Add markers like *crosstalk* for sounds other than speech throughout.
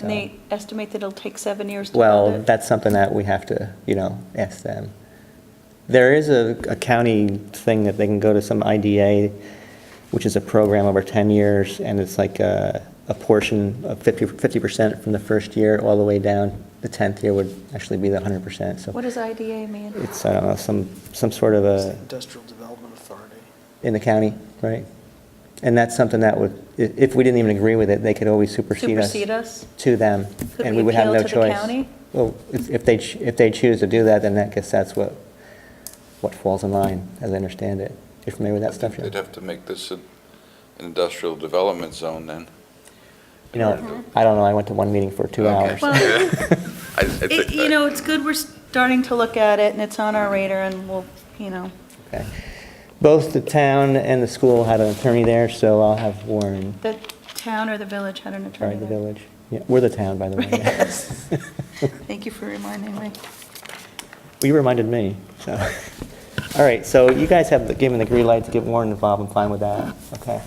And they estimate that it'll take seven years to build Well, it? that's something that we have to, you know, ask them. There is a, a county thing that they can go to some IDA, which is a program over 10 years, and it's like a, a portion of 50, 50% from the first year all the way down. The 10th year would actually be the 100%, so. What does IDA mean? It's, I don't know, some, some sort of It's the a, Industrial Development Authority. in the county, right? And that's something that would, i- if we didn't even agree with it, they could always supersede us. Supersede us? to them, Could and we we would have no appeal to the choice. county? Well, if if they, ch- if they choose to do that, then I guess that's what, what falls in line, as I understand it. You familiar with that stuff? Jim? They'd have to make this an industrial development zone then. You know, I don't know, I went to one meeting for two Okay. hours. Well, *laughs* I- I think it- you that- know, it's good we're starting to look at it, and it's on our radar, and we'll, you know, *laughs* Okay. Both the town and the school had an attorney there, so I'll have Warren, the town or the village had an attorney sorry, the there. village. Yeah, We're the town, by the way. *laughs* *laughs* Yes. *laughs* Thank you for reminding me. Well, you reminded me, so. *laughs* All right, so you guys have given the green light to get Warren involved, I'm fine with that, okay?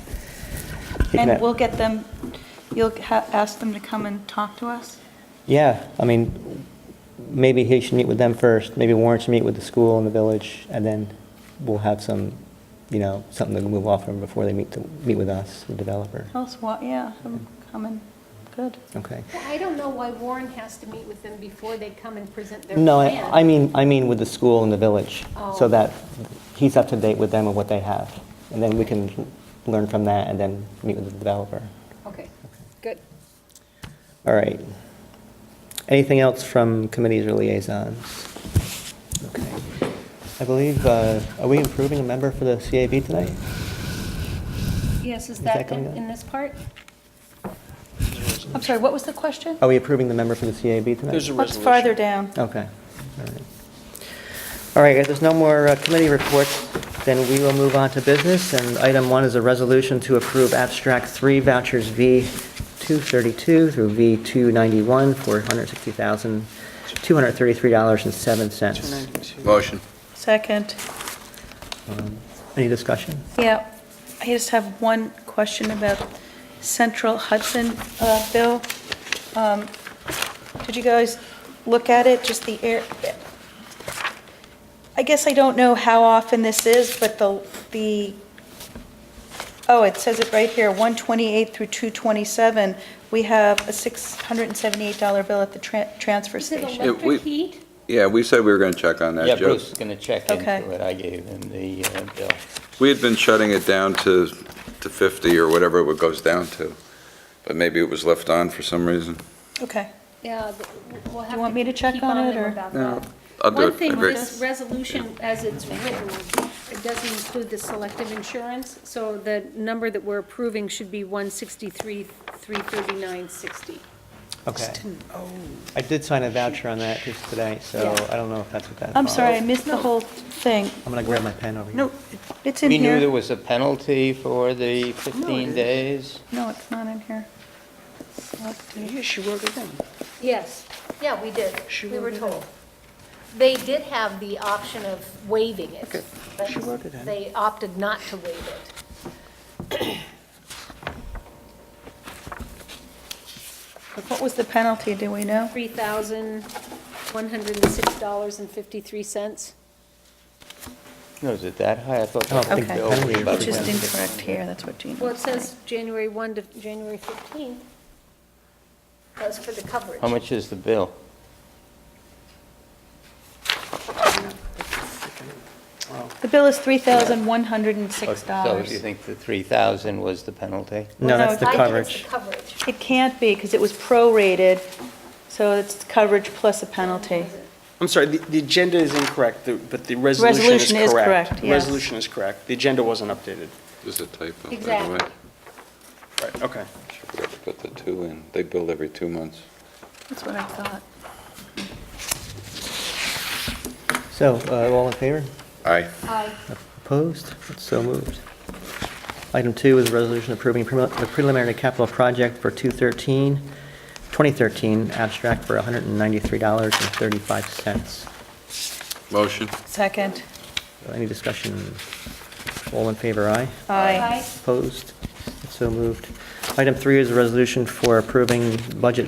You can And have- we'll get them, you'll ha- ask them to come and talk to us? Yeah, I mean, maybe he should meet with them first, maybe Warren should meet with the school and the village, and then we'll have some, you know, something to move off from before they meet, to meet with us, the developer. Tell us what, yeah, have them come and, good. Okay. Well, I don't know why Warren has to meet with them before they come and present their plan. No, I I mean, I mean with the school and the village, so Oh. that he's up to date with them and what they have. And then we can learn from that and then meet with the developer. Okay, good. All right. Anything else from committees or liaisons? Okay. I believe, uh, are we approving a member for the CAB tonight? Yes, is that that coming in up? in this part? There's a I'm sorry, what was the question? Are we approving the member for the CAB tonight? There's a What's resolution. farther down? Okay. All right. All right, if there's no more uh, committee reports, then we will move on to business. And item one is a resolution to approve abstract three vouchers V-232 through V-291 for $160,233.07. 292. Motion. Second. Um, Any discussion? Yeah, I just have one question about Central Hudson uh, bill. Um, Did you guys look at it, just the air? I guess I don't know how often this is, but the, the, oh, it says it right here, 128 through 227, we have a $678 bill at the tran- transfer Is it station. we- electric heat? Yeah, we said we were going to check on that, Yeah, Joe. Bruce is going to check Okay. into it. I gave him the uh, bill. We had been shutting it down to, to 50 or whatever it goes down to, but maybe it was left on for some reason. Okay, Yeah, th- we'll have to. want me to check keep on it, them or- about No, that. I'll do One it. I thing, agree. this resolution, as it's written, it doesn't include the selective insurance, so the number that we're approving should be 163, 339.60. Okay. I did sign a voucher on that just today, so Yeah. I don't know if that's what that I'm sorry, I follows. missed the whole thing. I'm going to grab my pen over here. No, it's in We here. knew there was a penalty for the 15 days. No, it's not in here. Yeah, she wrote it down. Yes, yeah, we did. She We were wrote it told. They did have the option of waiving it. but She wrote it in. They opted not to waive it. What was the penalty, do we know? $3,106.53. No, is it that high? I thought I don't the think Okay. bill was about Which is 20. incorrect here, that's what Gina. Well, it says January 1 to January 15. That was for the coverage. How much is the bill? The bill is So Oh, do you $3,106. think the 3,000 was the penalty? No, Well, that's the I think it's coverage. the coverage. It can't be, because it was prorated, so it's coverage plus a penalty. I'm sorry, the the agenda is incorrect, the- but the resolution Resolution is is correct. correct, yes. Resolution is correct. The agenda wasn't updated. There's a typo, by the way. Exactly. Right, okay. Should we have to Put the two in. They bill every two months. That's what I thought. So, uh, all in favor? Aye. Uh, Aye. Opposed? So moved. Item two is a resolution approving prelim- the preliminary capital project for 213, 2013, abstract for $193.35. Motion. Second. Any discussion? All in favor, aye? Aye. Opposed? So moved. Item three is a resolution for approving budget